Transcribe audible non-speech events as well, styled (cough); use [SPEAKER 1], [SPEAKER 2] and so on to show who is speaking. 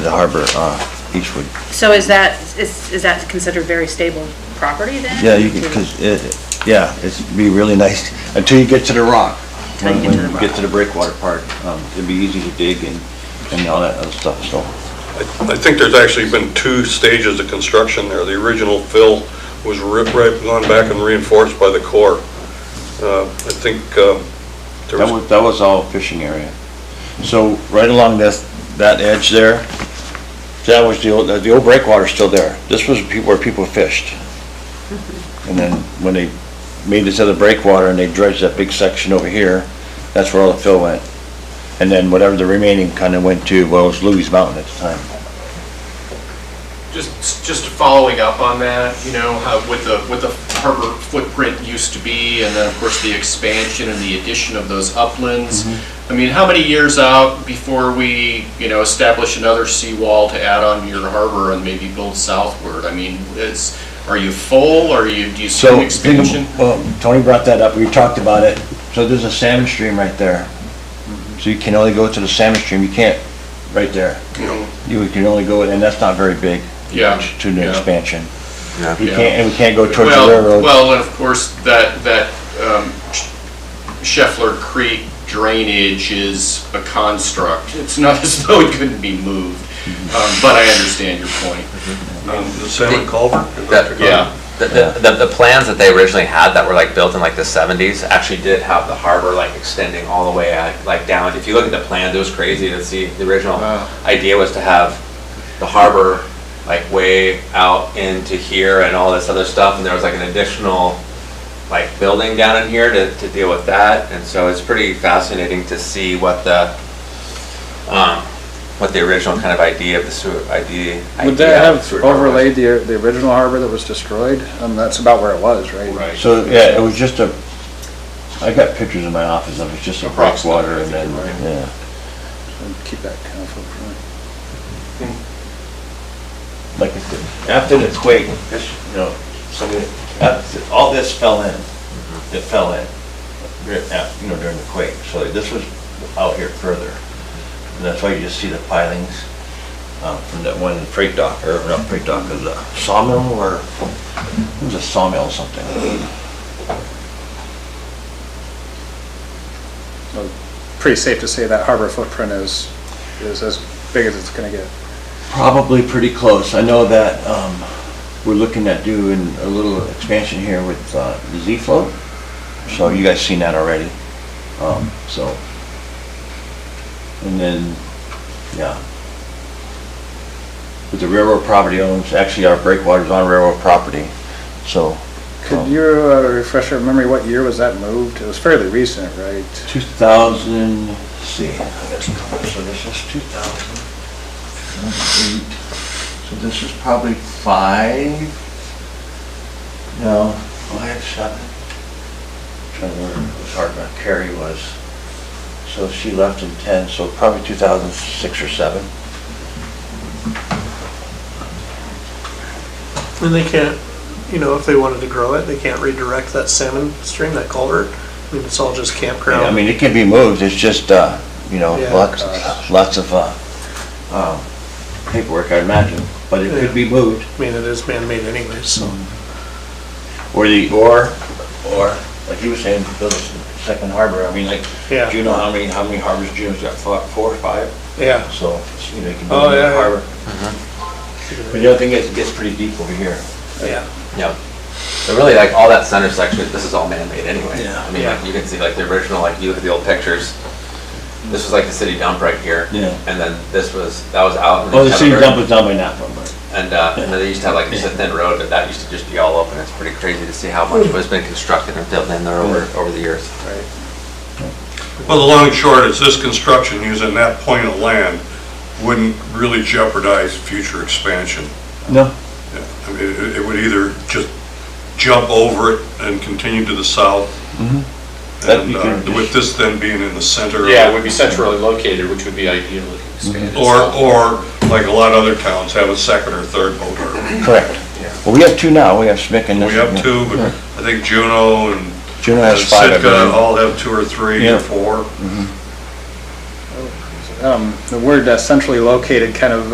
[SPEAKER 1] the harbor, uh, Eastwood.
[SPEAKER 2] So is that, is, is that considered very stable property then?
[SPEAKER 1] Yeah, you could, because it, yeah, it's be really (laughs) nice until you get to the rock.
[SPEAKER 2] Until you get to the
[SPEAKER 1] When
[SPEAKER 2] rock.
[SPEAKER 1] Get to the breakwater part, um, it'd be easy to dig and, and all that other stuff, so.
[SPEAKER 3] I think there's actually been two stages of construction there. The original fill was ripped, right, gone back and reinforced by the Corps. Uh, I think uh, there
[SPEAKER 1] That
[SPEAKER 3] was,
[SPEAKER 1] was, that was all fishing area. So right along this, that edge there, that was the old, the old breakwater's still there. This was pe- where people fished. And then when they made this other breakwater and they dredged that big section over here, that's where all the fill went. And then whatever the remaining kind of went to, well, it was Louis Mountain at the time.
[SPEAKER 4] Just, just following up on that, you know, how, what the, what the harbor footprint used to be, and then, of course, the expansion and the addition of those uplands. I mean, how many years out before we, you know, establish another seawall to add on to your harbor and maybe build southward? I mean, is, are you full, or you, do you see
[SPEAKER 1] So,
[SPEAKER 4] an
[SPEAKER 1] think of-
[SPEAKER 4] expansion?
[SPEAKER 1] well, Tony brought that up, we talked about it. So there's a salmon stream right there. So you can only go to the salmon stream, you can't, right there.
[SPEAKER 4] You know,
[SPEAKER 1] You can only go, and that's not very big.
[SPEAKER 4] Yeah,
[SPEAKER 1] To the
[SPEAKER 4] yeah.
[SPEAKER 1] expansion.
[SPEAKER 5] Yeah.
[SPEAKER 1] We can't, and we can't go towards the
[SPEAKER 4] Well,
[SPEAKER 1] railroad.
[SPEAKER 4] well, and of course, that, that um, Scheffler Creek drainage is a construct. It's not (laughs) as though it couldn't be moved,
[SPEAKER 1] Mm-hmm.
[SPEAKER 4] Um, but I understand your point.
[SPEAKER 3] um,
[SPEAKER 4] Um,
[SPEAKER 3] the salmon culvert?
[SPEAKER 5] That-
[SPEAKER 4] Yeah,
[SPEAKER 5] The, the, the- the plans that they originally had that were like built in like the seventies actually did have the harbor like extending all the way uh, like down. If you look at the plans, it was crazy to see. The original
[SPEAKER 4] Wow.
[SPEAKER 5] idea was to have the harbor like way out into here and all this other stuff. And there was like an additional like building down in here to, to deal with that. And so it's pretty fascinating to see what the, um, what the original kind of idea of the sewer, idea. idea
[SPEAKER 6] Would that
[SPEAKER 5] of
[SPEAKER 6] have
[SPEAKER 5] sewer harbor was.
[SPEAKER 6] overlaid the, the original harbor that was destroyed? Um, that's about where it was, right?
[SPEAKER 4] right.
[SPEAKER 1] So, yeah, it was just a, I got pictures in my office of it, just a
[SPEAKER 4] Approximate,
[SPEAKER 1] breakwater
[SPEAKER 4] I
[SPEAKER 1] and
[SPEAKER 4] think,
[SPEAKER 1] then,
[SPEAKER 4] right.
[SPEAKER 1] yeah.
[SPEAKER 6] Keep that kind of.
[SPEAKER 1] Like, I said, after the quake, this, you know, some of it- after- all this fell in, it fell in, dur- uh, you know, during the quake. So this was out here further. And that's why you just see the pilings um, from that one freight dock, or not freight dock, it was a sawmill or, it was a sawmill or something.
[SPEAKER 6] Pretty safe to say that harbor footprint is, is as big as it's gonna get.
[SPEAKER 1] Probably pretty close. I know that um, we're looking at doing a little expansion here with uh, the Z float. So you guys seen that already. Um, So, and then, yeah. But the railroad property owns, actually our breakwater's on railroad property, so.
[SPEAKER 6] Could you uh, refresh our memory, what year was that moved? It was fairly recent, right?
[SPEAKER 1] 2000, let's see, I got some numbers. so this is 2008. So this is probably five, no, five, seven. Trying to remember, it was hard, but Carrie was, so she left in 10, so probably 2006 or 7.
[SPEAKER 7] And they can't, you know, if they wanted to grow it, they can't redirect that salmon stream, that culvert. I mean, it's all just campground.
[SPEAKER 1] Yeah, I mean, it can be moved, it's just, uh, you know,
[SPEAKER 7] Yeah.
[SPEAKER 1] lots, lots of, uh, um, paperwork, I imagine, but it could be moved.
[SPEAKER 7] I mean, it is man-made anyways, so.
[SPEAKER 1] Mm. Or the, or, or, like you were saying, build a second harbor, I mean, like,
[SPEAKER 7] Yeah.
[SPEAKER 1] do you know how many, how many harbors June's got, Four- four or five?
[SPEAKER 7] Yeah.
[SPEAKER 1] So, you know, you can
[SPEAKER 7] Oh,
[SPEAKER 1] build
[SPEAKER 7] yeah, Mm-hmm.
[SPEAKER 1] a
[SPEAKER 7] yeah.
[SPEAKER 1] harbor. But the other thing is, it gets pretty deep over here.
[SPEAKER 7] Yeah.
[SPEAKER 5] Yeah. So really, like, all that center section, this is all man-made anyway.
[SPEAKER 1] Yeah.
[SPEAKER 5] I mean, like, you can see, like, the original, like, you look at the old pictures, this was like the city dump right here.
[SPEAKER 1] Yeah.
[SPEAKER 5] And then this was, that was out. in
[SPEAKER 1] Oh, the city
[SPEAKER 5] Kettlebur.
[SPEAKER 1] dump is down by that one, but.
[SPEAKER 5] And, uh, and then they used to have like just a thin road, but that used to just be all open. It's pretty crazy to see how much
[SPEAKER 1] Hmm.
[SPEAKER 5] was been constructed and built in there over, over the years.
[SPEAKER 3] Well, the long and short is this construction using that point of land wouldn't really jeopardize future expansion.
[SPEAKER 1] No.
[SPEAKER 3] Yeah, I mean, it it would either just jump over it and continue to the south.
[SPEAKER 1] That
[SPEAKER 3] And
[SPEAKER 1] you
[SPEAKER 3] uh,
[SPEAKER 1] can
[SPEAKER 3] with
[SPEAKER 1] just-
[SPEAKER 3] this then being in the center. of-
[SPEAKER 4] Yeah, it would be centrally located, which would be ideal if
[SPEAKER 1] Mm-hmm.
[SPEAKER 4] expanded.
[SPEAKER 3] Or, or like a lot of other towns have a second or third boat harbor.
[SPEAKER 1] Correct. Well, we have two now, we have Schmick and this.
[SPEAKER 3] We have
[SPEAKER 1] one.
[SPEAKER 3] two, but I think Juneau and
[SPEAKER 1] Juneau
[SPEAKER 3] and
[SPEAKER 1] has five, I
[SPEAKER 3] Sitka
[SPEAKER 1] believe.
[SPEAKER 3] all have two or three
[SPEAKER 1] Yeah.
[SPEAKER 3] or four.
[SPEAKER 6] Um, The word uh, centrally located kind of